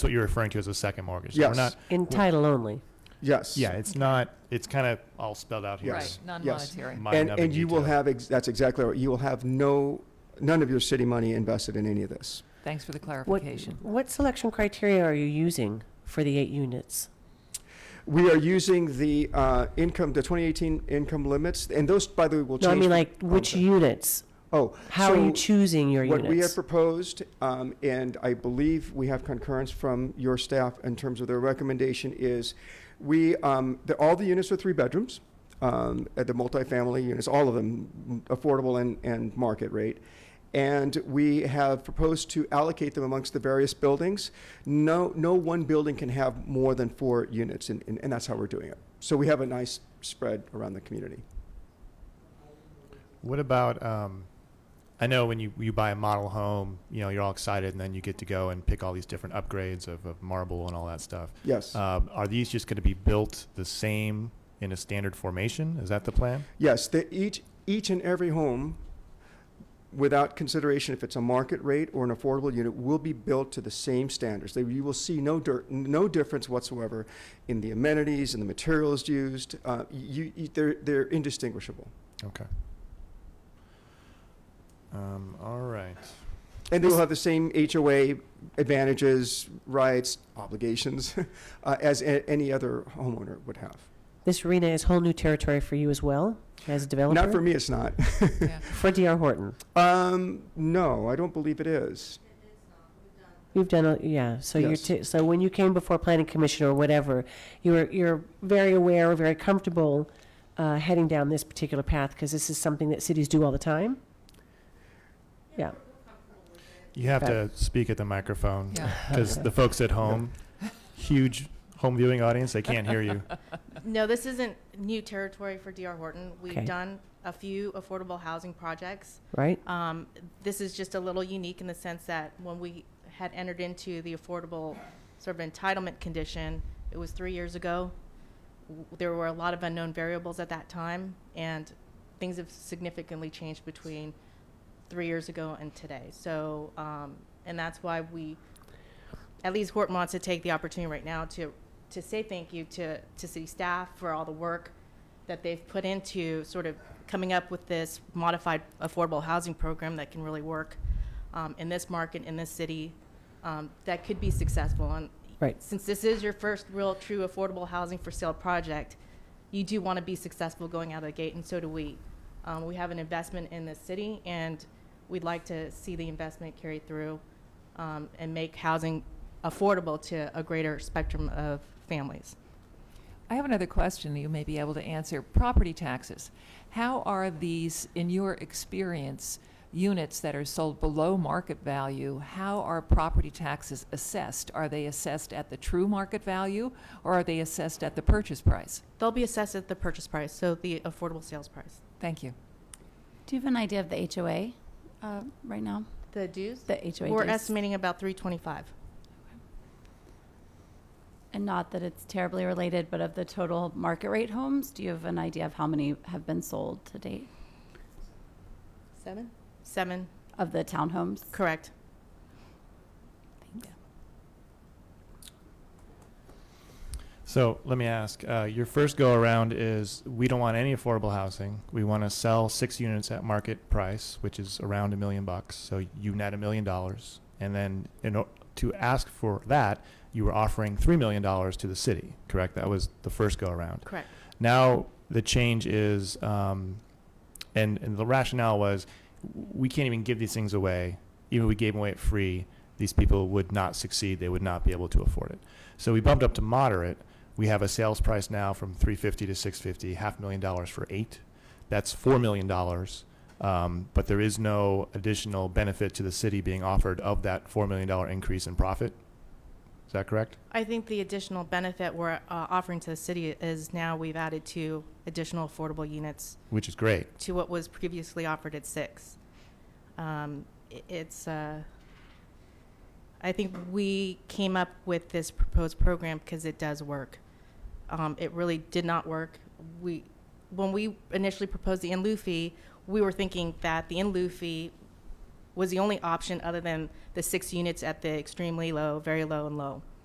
That's what you're referring to as a second mortgage. So Yes. We're not, In title only. Yes. yeah, it's not, it's kind of all spelled out here. Yes. Right, non-monetary. Minor And, nubbing and you will detail. have, ex- that's exactly right. You will have no, none of your city money invested in any of this. Thanks for the What, clarification. what selection criteria are you using for the eight units? We are using the uh, income, the 2018 income limits, and those, by the way, will No, change. I mean, like, which sorry. units? Oh. How are you so- choosing your What we have units? proposed, um, and I believe we have concurrence from your staff in terms of their recommendation, is we, um, the, all the units are three bedrooms, um, at the multifamily units, all of them affordable and, and market rate. And we have proposed to allocate them amongst the various buildings. No, no one building can have more than four units, and, and, and that's how we're doing it. So we have a nice spread around the community. What about, um, I know when you, you buy a model home, you know, you're all excited and then you get to go and pick all these different upgrades of, of marble and all that stuff. Yes. Um, are these just going to be built the same in a standard formation? Is that the plan? Yes, the, each, each and every home, without consideration if it's a market rate or an affordable unit, will be built to the same standards. They, you will see no dirt, no difference whatsoever in the amenities and the materials used. Uh, you, you, they're, they're indistinguishable. Okay. Um, all right. And they will have the same HOA advantages, rights, obligations, uh, as a, any other homeowner would have. This arena is whole new territory for you as well, as a developer? Not for me, it's not. Yeah. For D.R. Horton. Um, no, I don't believe it is. You've done, a- yeah, so you're, Yes. t- so when you came before planning commission or whatever, you're, you're very aware, very comfortable uh, heading down this particular path, because this is something that cities do all the time? Yeah, You have to speak at the microphone Yeah. because the folks at home, huge home viewing audience, they can't hear you. No, this isn't new territory for DR Horton. Okay. We've done a few affordable housing projects. right? Um, This is just a little unique in the sense that when we had entered into the affordable sort of entitlement condition, it was three years ago. W- There were a lot of unknown variables at that time, and things have significantly changed between three years ago and today. So, um, and that's why we, at least Horton wants to take the opportunity right now to, to say thank you to, to city staff for all the work that they've put into sort of coming up with this modified affordable housing program that can really work um, in this market, in this city, um, that could be successful. And Right. since this is your first real, true affordable housing for sale project, you do want to be successful going out of the gate, and so do we. Um, we have an investment in this city, and we'd like to see the investment carried through um, and make housing affordable to a greater spectrum of families. I have another question you may be able to answer. Property taxes. How are these, in your experience, units that are sold below market value, how are property taxes assessed? Are they assessed at the true market value, or are they assessed at the purchase price? They'll be assessed at the purchase price, so the affordable sales price. Thank you. Do you have an idea of the HOA uh, right now? The dues? The HOA We're dues? estimating about 325. And not that it's terribly related, but of the total market rate homes, do you have an idea of how many have been sold to date Seven? Seven, of the townhomes? correct. Thanks. So let me ask, uh, your first go around is we don't want any affordable housing. We want to sell six units at market price, which is around a million bucks. So you net a million dollars. And then in o- to ask for that, you were offering $3 million to the city, correct? That was the first go around. Correct. Now the change is, um, and, and the rationale was, we can't even give these things away. Even if we gave them away at free, these people would not succeed. They would not be able to afford it. So we bumped up to moderate. We have a sales price now from 350 to 650, half million dollars for eight. That's four million dollars. Um, but there is no additional benefit to the city being offered of that four million dollar increase in profit. Is that correct? I think the additional benefit we're uh, offering to the city is now we've added two additional affordable units Which is great. to what was previously offered at six. Um, i- It's, uh, I think we came up with this proposed program because it does work. Um, It really did not work. We, when we initially proposed the in lieu fee, we were thinking that the in lieu fee was the only option other than the six units at the extremely low, very low, and low.